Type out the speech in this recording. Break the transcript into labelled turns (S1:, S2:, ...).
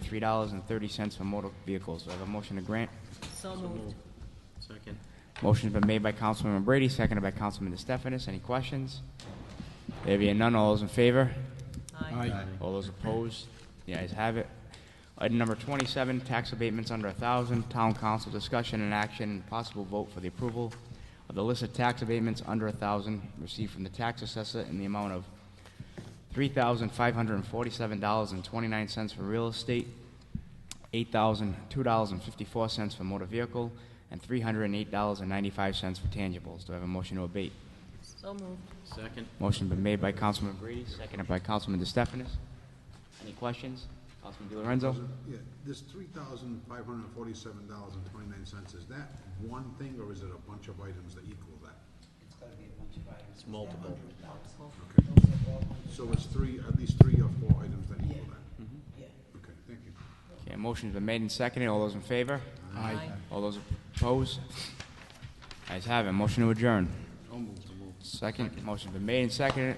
S1: three dollars and thirty cents for motor vehicles. Do I have a motion to grant?
S2: So moved.
S3: Second.
S1: Motion's been made by Councilman Brady, seconded by Councilman DeStefanis. Any questions? There being none, all those in favor?
S2: Aye.
S1: All those opposed? The ayes have it. Item number twenty-seven, tax abatements under a thousand, town council discussion and action, and possible vote for the approval of the list of tax abatements under a thousand received from the tax assessor in the amount of three thousand five hundred and forty-seven dollars and twenty-nine cents for real estate, eight thousand two dollars and fifty-four cents for motor vehicle, and three hundred and eight dollars and ninety-five cents for tangibles. Do I have a motion to abate?
S2: So moved.
S3: Second.
S1: Motion been made by Councilman Brady, seconded by Councilman DeStefanis. Any questions? Councilman DiLorenzo?
S4: Yeah, this three thousand five hundred and forty-seven dollars and twenty-nine cents, is that one thing or is it a bunch of items that equal that?
S3: It's multiple.
S4: So it's three, at least three or four items that equal that? Okay, thank you.
S1: Okay, motion's been made and seconded. All those in favor?
S2: Aye.
S1: All those opposed? Ayes have it. Motion to adjourn. Second, motion's been made and seconded.